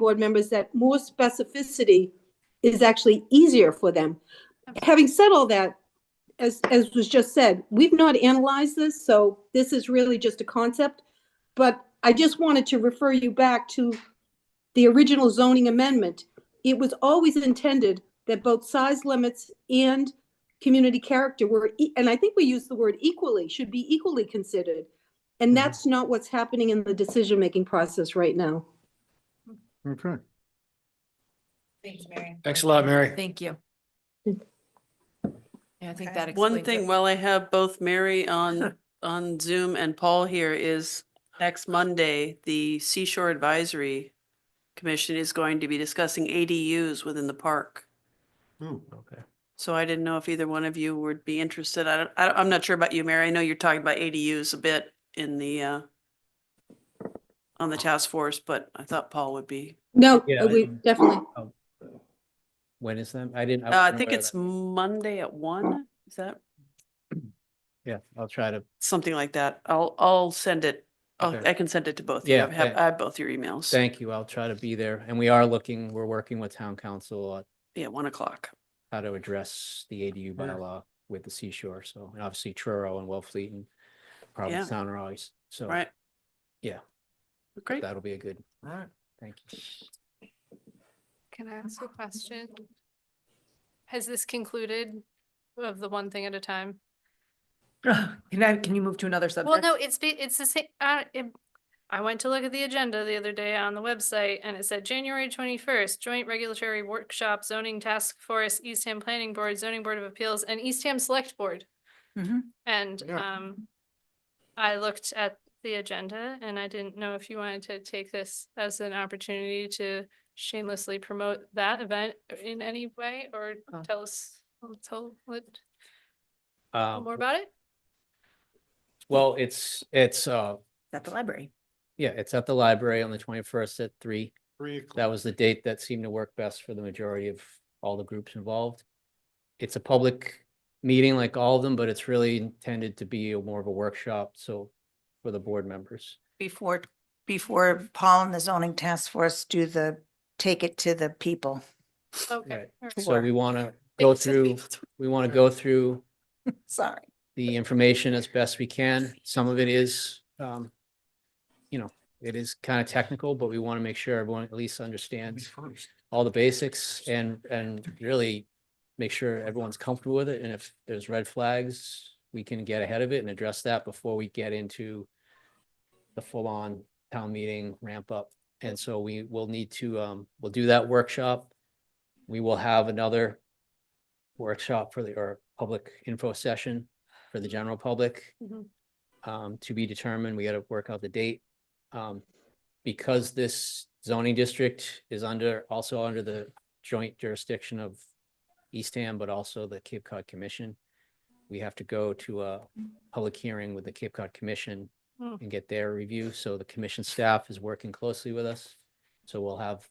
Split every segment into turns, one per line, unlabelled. board members that more specificity is actually easier for them. Having said all that, as, as was just said, we've not analyzed this, so this is really just a concept. But I just wanted to refer you back to the original zoning amendment. It was always intended that both size limits and community character were, e- and I think we used the word equally, should be equally considered.
Mhm.
And that's not what's happening in the decision-making process right now.
Okay.
Thanks, Mary.
Thanks a lot, Mary.
Thank you. Yeah, I think
Okay.
that explains
One
it.
thing, while I have both Mary on, on Zoom and Paul here is next Monday, the Seashore Advisory Commission is going to be discussing ADUs within the park.
Okay.
So I didn't know if either one of you would be interested. I don't, I, don't- I'm not sure about you, Mary. I know you're talking about ADUs a bit in the, uh,
Oh.
on the task force, but I thought Paul would be.
No,
Yeah,
we
and-
definitely,
When is that? I didn't.
Uh,
wasn't
I think
aware of
it's
that.
Monday at one. Is that
Yeah, I'll try to,
something like that? I'll, I'll send it. I'll-
Okay.
I can send it to both. of you.
Yeah,
I have,
thank-
I have both your emails.
thank you. I'll try to be there. And we are looking, we're working with town council on
Yeah, one o'clock.
how to address the ADU
Yeah.
bylaw with the seashore. So, and obviously Truro and Wellfleet and Provincetown are always, so.
Right.
Oh. yeah.
Great.
That'll be a good,
All right.
thank you.
Can I ask a question? Has this concluded of the one thing at a time?
Can I, can you move to another subject?
Well, no, it's, be- it's the same, uh, it- I went to look at the agenda the other day on the website and it said January twenty-first, joint regulatory workshop, zoning task force, Eastham Planning Board, Zoning Board of Appeals, and Eastham Select Board.
Mhm.
And,
Yeah.
um, I looked at the agenda and I didn't know if you wanted to take this as an opportunity to shamelessly promote that event in any way or
Oh.
tell us, tell, let,
Um,
more about it?
well, it's, it's, uh,
At the library.
yeah, it's at the library on the twenty-first at three.
Three
That
o'clock.
was the date that seemed to work best for the majority of all the groups involved. It's a public meeting like all of them, but it's really intended to be a more of a workshop, so for the board members.
Before, before Paul and the zoning task force do the, take it to the people.
Okay.
Right.
all right.
So we want to go through, we want to go through
Sorry.
the information as best we can. Some of it is, um, you know, it is kind of technical, but we want to make sure everyone at least understands
First.
all the basics and, and really make sure everyone's comfortable with it. And if there's red flags, we can get ahead of it and address that before we get into the full-on town meeting ramp up. And so we will need to, um, we'll do that workshop. We will have another workshop for the, or public info session for the general public.
Mhm.
Um, to be determined, we gotta work out the date. Um, because this zoning district is under, also under the joint jurisdiction of Eastham, but also the Cape Cod Commission, we have to go to a public hearing with the Cape Cod Commission
Hmm.
and get their review. So the commission staff is working closely with us. So we'll have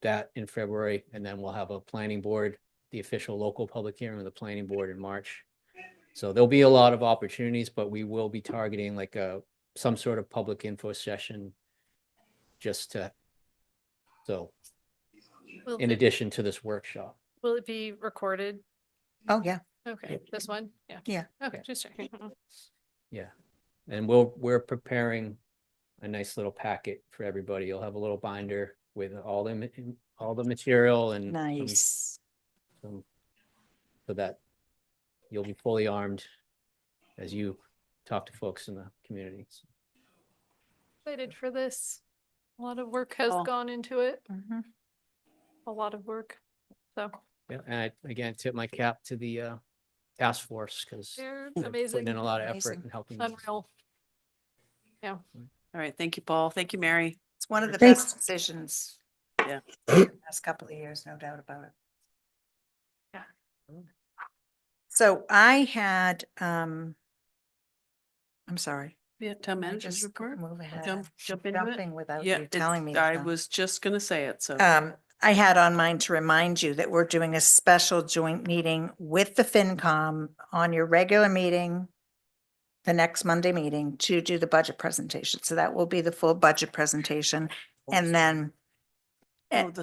that in February, and then we'll have a planning board, the official local public hearing of the planning board in March. So there'll be a lot of opportunities, but we will be targeting like a, some sort of public info session just to, so
Will
in
it-
addition to this workshop.
Will it be recorded?
Oh, yeah.
Okay, this one? Yeah.
Yeah.
Okay,
Yeah.
just checking. Mhm.
And we'll, we're preparing a nice little packet for everybody. You'll have a little binder with all the, ma- all the material and some-
Nice.
some- so that you'll be fully armed as you talk to folks in the community. So
Excited for this. A lot of work has
Cool.
gone into it,
Mhm.
a lot of work. So
Yeah, and I, again, tip my cap to the uh, task force because
they're
putting
amazing,
in a lot of effort
Amazing.
and helping. us.
unreal.
All right. Thank you, Paul. Thank you, Mary.
It's one of the
Thanks.
best decisions.
Yeah.
Last couple of years, no doubt about it.
Yeah.
So I had, um, I'm sorry.
Yeah, town
I
manager's
just
report.
Move ahead.
Jump, jump into it.
Jumping without
Yeah,
you
it's-
telling me.
I
stuff.
was just gonna say it, so.
Um, I had on mine to remind you that we're doing a special joint meeting with the FinCom on your regular meeting, the next Monday meeting to do the budget presentation. So that will be the full budget presentation. And then Eh.
Oh, the